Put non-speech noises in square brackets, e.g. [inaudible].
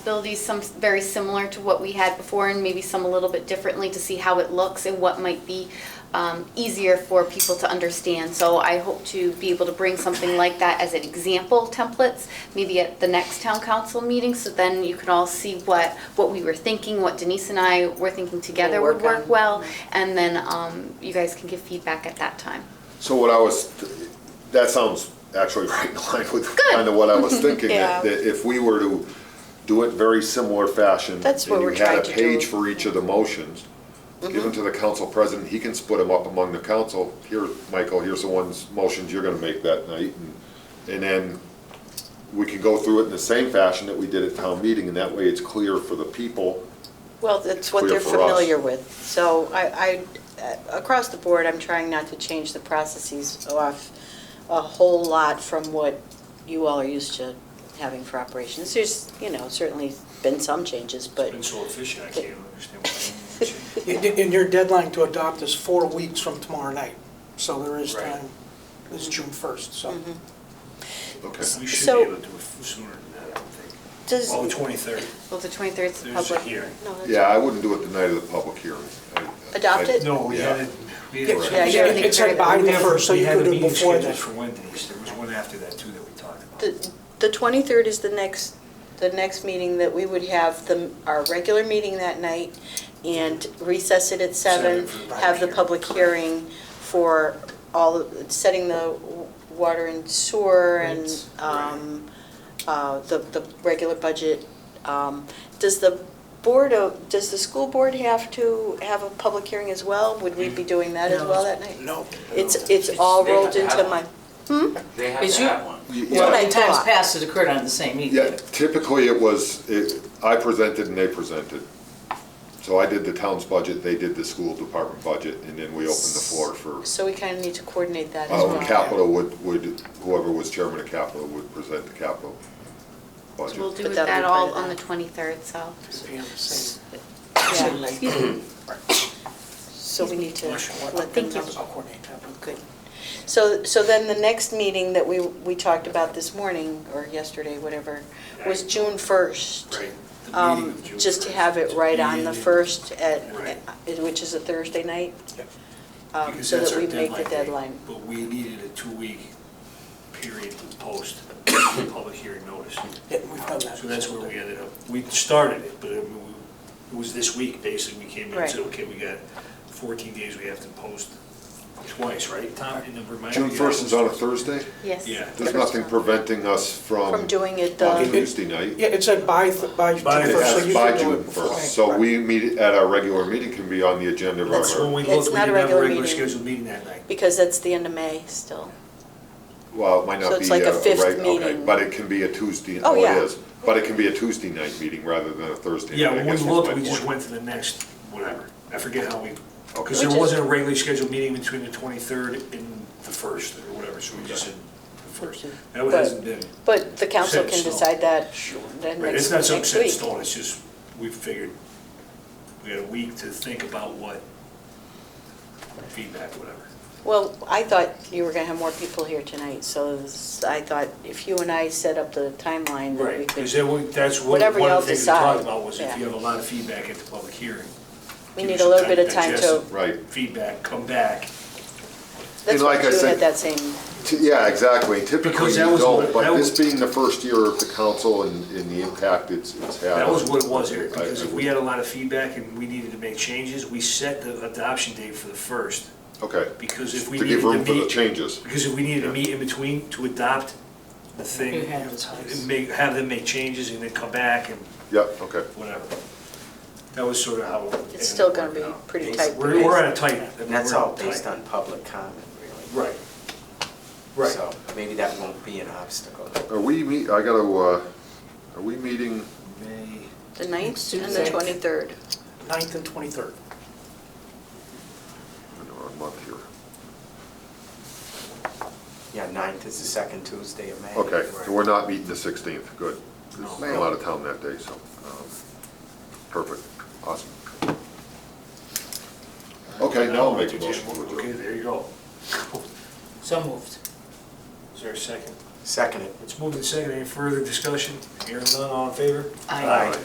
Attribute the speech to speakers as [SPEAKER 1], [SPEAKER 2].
[SPEAKER 1] abilities, some very similar to what we had before, and maybe some a little bit differently to see how it looks and what might be um, easier for people to understand. So I hope to be able to bring something like that as an example templates, maybe at the next town council meeting, so then you can all see what, what we were thinking, what Denise and I were thinking together
[SPEAKER 2] We'll
[SPEAKER 1] would
[SPEAKER 2] work
[SPEAKER 1] work
[SPEAKER 2] on.
[SPEAKER 1] well, and then um, you guys can give feedback at that time.
[SPEAKER 3] So what I was, that sounds actually [laughs] right in line with kind of what I
[SPEAKER 2] [laughs]
[SPEAKER 3] was thinking.
[SPEAKER 2] Yeah.
[SPEAKER 3] that- That if we were to do it very similar fashion.
[SPEAKER 2] That's what we're trying
[SPEAKER 3] And
[SPEAKER 2] to
[SPEAKER 3] you
[SPEAKER 2] do. Mm-hmm.
[SPEAKER 3] had a page for each of the motions, given to the council president, he can split them up among the council. Here, Michael, here's the ones, motions you're gonna make that night. and- And then we can go through it in the same fashion that we did at town meeting, and that way it's clear for the people.
[SPEAKER 2] Well, that's what
[SPEAKER 3] Clear
[SPEAKER 2] they're
[SPEAKER 3] for us.
[SPEAKER 2] familiar with. So I, I, uh, across the board, I'm trying not to change the processes off a whole lot from what you all are used to having for operations. There's, you know, certainly been some changes, but
[SPEAKER 4] Been so efficient, I can't understand why they didn't change.
[SPEAKER 5] And and your deadline to adopt is four weeks from tomorrow night, so there is
[SPEAKER 4] Right.
[SPEAKER 5] time. It's June 1st, so.
[SPEAKER 2] Mm-hmm.
[SPEAKER 3] Okay.
[SPEAKER 4] We should
[SPEAKER 2] So-
[SPEAKER 4] be able to do it sooner than that, I don't think.
[SPEAKER 2] does.
[SPEAKER 4] Well, the 23rd,
[SPEAKER 1] Well, the 23rd is the
[SPEAKER 4] there's a
[SPEAKER 1] public.
[SPEAKER 4] hearing.
[SPEAKER 2] No, that's-
[SPEAKER 3] Yeah, I wouldn't do it the night of the public hearing. I- I-
[SPEAKER 2] Adopt it?
[SPEAKER 4] No, we
[SPEAKER 3] Yeah.
[SPEAKER 4] had, it- we had.
[SPEAKER 2] Yeah,
[SPEAKER 5] It's
[SPEAKER 2] you're in the
[SPEAKER 5] it's like
[SPEAKER 2] critical-
[SPEAKER 5] by
[SPEAKER 4] We
[SPEAKER 5] the
[SPEAKER 4] had-
[SPEAKER 5] first, so
[SPEAKER 4] we
[SPEAKER 5] you
[SPEAKER 4] had a
[SPEAKER 5] could do it
[SPEAKER 4] meeting
[SPEAKER 5] before
[SPEAKER 4] scheduled
[SPEAKER 5] that.
[SPEAKER 4] For Wednesdays, there was one after that too that we talked about.
[SPEAKER 2] The the 23rd is the next, the next meeting that we would have, the our regular meeting that night, and recess it at seven.
[SPEAKER 4] Seven for the public
[SPEAKER 2] have the
[SPEAKER 4] hearing.
[SPEAKER 2] public hearing for all, of- setting the w- water and sewer and
[SPEAKER 4] Rates.
[SPEAKER 2] um, uh, the the regular budget. Um, Does the board, of does the school board have to have a public hearing as well? Would
[SPEAKER 4] Mm.
[SPEAKER 2] we be doing that as well that night?
[SPEAKER 5] No.
[SPEAKER 2] It's, it's all
[SPEAKER 6] They have
[SPEAKER 2] rolled
[SPEAKER 6] to
[SPEAKER 2] into
[SPEAKER 6] have
[SPEAKER 2] my,
[SPEAKER 6] one.
[SPEAKER 1] Hmm?
[SPEAKER 6] They have
[SPEAKER 7] Is
[SPEAKER 6] to
[SPEAKER 7] you-
[SPEAKER 6] have one.
[SPEAKER 3] Yeah.
[SPEAKER 2] what I
[SPEAKER 7] Well, in times
[SPEAKER 2] thought.
[SPEAKER 7] past, it occurred on the same evening.
[SPEAKER 3] Yeah, typically it was, it- I presented and they presented. So I did the town's budget, they did the school department budget, and then we opened the floor for,
[SPEAKER 2] so we kind of need to coordinate that as well.
[SPEAKER 3] um, capital would, would, whoever was chairman of capital would present the capital
[SPEAKER 1] We'll
[SPEAKER 3] budget.
[SPEAKER 1] do
[SPEAKER 2] But that'll
[SPEAKER 1] that
[SPEAKER 2] be part
[SPEAKER 1] all
[SPEAKER 2] of
[SPEAKER 1] on the
[SPEAKER 2] that.
[SPEAKER 1] 23rd, so.
[SPEAKER 5] Yeah, same-
[SPEAKER 2] Yeah.
[SPEAKER 5] same night.
[SPEAKER 2] So we need to let them
[SPEAKER 5] Thank you.
[SPEAKER 2] know.
[SPEAKER 5] I'll coordinate that.
[SPEAKER 2] Good. So, so then the next meeting that we, we talked about this morning, or yesterday, whatever, was June 1st.
[SPEAKER 4] Right, the
[SPEAKER 2] Um,
[SPEAKER 4] meeting of June
[SPEAKER 2] Just to
[SPEAKER 4] 1st.
[SPEAKER 2] have it right on the
[SPEAKER 4] Yeah.
[SPEAKER 2] 1st, at,
[SPEAKER 4] Right.
[SPEAKER 2] at- which is a Thursday night,
[SPEAKER 5] Yep.
[SPEAKER 2] um,
[SPEAKER 4] Because
[SPEAKER 2] so
[SPEAKER 4] that's
[SPEAKER 2] that
[SPEAKER 4] our
[SPEAKER 2] we make the
[SPEAKER 4] date.
[SPEAKER 2] deadline.
[SPEAKER 4] But we needed a two-week period to post the public hearing notice.
[SPEAKER 5] Yeah, we've done that.
[SPEAKER 4] So that's where we ended up, we started it, but I mean, we- it was this week, basically, we came in and said,
[SPEAKER 2] Right.
[SPEAKER 4] okay, we got 14 days, we have to post twice, right, Tom? And then remind
[SPEAKER 3] June
[SPEAKER 4] me-
[SPEAKER 3] first is on a Thursday?
[SPEAKER 1] Yes.
[SPEAKER 4] Yeah.
[SPEAKER 3] There's nothing preventing us from.
[SPEAKER 2] From doing it
[SPEAKER 3] On
[SPEAKER 2] the,
[SPEAKER 3] Tuesday night.
[SPEAKER 5] Yeah, it said by, th- by June
[SPEAKER 4] By the-
[SPEAKER 5] 1st, so you
[SPEAKER 3] It's by
[SPEAKER 5] can do
[SPEAKER 3] June
[SPEAKER 5] it before.
[SPEAKER 3] first, so we meet at our regular meeting can be on the agenda of
[SPEAKER 4] That's when
[SPEAKER 3] our,
[SPEAKER 4] we
[SPEAKER 2] It's
[SPEAKER 4] looked, we
[SPEAKER 2] not a
[SPEAKER 4] didn't have a
[SPEAKER 2] regular
[SPEAKER 4] regular
[SPEAKER 2] meeting.
[SPEAKER 4] scheduled meeting that night.
[SPEAKER 2] because that's the end of May still.
[SPEAKER 3] well, it might
[SPEAKER 2] So
[SPEAKER 3] not
[SPEAKER 2] it's
[SPEAKER 3] be.
[SPEAKER 2] like a fifth
[SPEAKER 3] right, okay,
[SPEAKER 2] meeting.
[SPEAKER 3] But it can be a Tuesday,
[SPEAKER 2] Oh,
[SPEAKER 3] oh, it
[SPEAKER 2] yeah.
[SPEAKER 3] is, but it can be a Tuesday night meeting rather than a Thursday.
[SPEAKER 4] Yeah,
[SPEAKER 3] night, I
[SPEAKER 4] when we
[SPEAKER 3] guess was my
[SPEAKER 4] looked, we just
[SPEAKER 3] point.
[SPEAKER 4] went to the next, whatever, I forget how we,
[SPEAKER 3] Okay.
[SPEAKER 4] because there wasn't a regularly scheduled meeting between the 23rd and the 1st, or whatever, so we just said the 1st. That
[SPEAKER 2] But-
[SPEAKER 4] hasn't been.
[SPEAKER 2] But the council
[SPEAKER 4] Set in
[SPEAKER 2] can
[SPEAKER 4] stone.
[SPEAKER 2] decide that then
[SPEAKER 4] Right,
[SPEAKER 2] next
[SPEAKER 4] it's not some
[SPEAKER 2] next
[SPEAKER 4] set in
[SPEAKER 2] week.
[SPEAKER 4] stone, it's just, we figured, we had a week to think about what feedback, whatever.
[SPEAKER 2] Well, I thought you were going to have more people here tonight, so this- I thought if you and I set up the timeline, that we
[SPEAKER 4] Right, because
[SPEAKER 2] could,
[SPEAKER 4] that wa- that's what, one of
[SPEAKER 2] Whatever y'all
[SPEAKER 4] the things we talked
[SPEAKER 2] decide,
[SPEAKER 4] about was
[SPEAKER 2] yeah.
[SPEAKER 4] if you have a lot of feedback at the public hearing.
[SPEAKER 2] we
[SPEAKER 4] give
[SPEAKER 2] need
[SPEAKER 4] you
[SPEAKER 2] a little
[SPEAKER 4] some
[SPEAKER 2] bit of time to,
[SPEAKER 4] digest it,
[SPEAKER 3] Right.
[SPEAKER 4] Feedback, come back.
[SPEAKER 2] that's
[SPEAKER 3] And
[SPEAKER 2] what
[SPEAKER 3] like I
[SPEAKER 2] you had
[SPEAKER 3] said-
[SPEAKER 2] that same,
[SPEAKER 3] T- Yeah, exactly. Typically
[SPEAKER 4] Because
[SPEAKER 3] you
[SPEAKER 4] that was
[SPEAKER 3] don't,
[SPEAKER 4] what-
[SPEAKER 3] but
[SPEAKER 4] that
[SPEAKER 3] this
[SPEAKER 4] was-
[SPEAKER 3] being the first year of the council and, and the impact it's, it's had.
[SPEAKER 4] That was
[SPEAKER 3] on-
[SPEAKER 4] what it was, Eric,
[SPEAKER 3] I- I
[SPEAKER 4] because if
[SPEAKER 3] would-
[SPEAKER 4] we had a lot of feedback and we needed to make changes, we set the adoption date for the first,
[SPEAKER 3] Okay,
[SPEAKER 4] because if we
[SPEAKER 3] to
[SPEAKER 4] needed
[SPEAKER 3] give
[SPEAKER 4] to
[SPEAKER 3] room for the
[SPEAKER 4] meet,
[SPEAKER 3] changes.
[SPEAKER 4] because if we needed to meet in between to adopt the
[SPEAKER 7] You
[SPEAKER 4] thing,
[SPEAKER 7] had those times.
[SPEAKER 4] and make, have them make changes and then come back and
[SPEAKER 3] Yep, okay.
[SPEAKER 4] whatever. That was sort of how. it ended
[SPEAKER 2] still
[SPEAKER 4] up
[SPEAKER 2] gonna
[SPEAKER 4] working
[SPEAKER 2] be
[SPEAKER 4] out.
[SPEAKER 2] pretty
[SPEAKER 4] It's-
[SPEAKER 2] tight
[SPEAKER 4] We're, we're
[SPEAKER 2] because-
[SPEAKER 4] on a tight. I mean,
[SPEAKER 6] And that's
[SPEAKER 4] we're
[SPEAKER 6] all
[SPEAKER 4] tight.
[SPEAKER 6] based on public comment, really.
[SPEAKER 4] Right. Right.
[SPEAKER 6] So maybe that won't be an obstacle.
[SPEAKER 3] Are we meet, I gotta, uh, are we meeting,
[SPEAKER 4] May,
[SPEAKER 2] the 9th and the
[SPEAKER 7] Tuesday.
[SPEAKER 2] 23rd.
[SPEAKER 5] 9th and 23rd.
[SPEAKER 3] I'm in the wrong month here.
[SPEAKER 6] Yeah, ninth is the second Tuesday of May.
[SPEAKER 3] Okay, so we're not meeting the sixteenth, good. 'Cause
[SPEAKER 4] No.
[SPEAKER 3] I'm out of town that day, so, um, perfect, awesome. Okay, now I'll make a motion.
[SPEAKER 4] Okay, there you go.
[SPEAKER 7] So moved.
[SPEAKER 4] Is there a second?
[SPEAKER 6] Second it.
[SPEAKER 4] Let's move to second. Any further discussion? Hearing none, all in favor?
[SPEAKER 1] Aye.
[SPEAKER 6] Aye.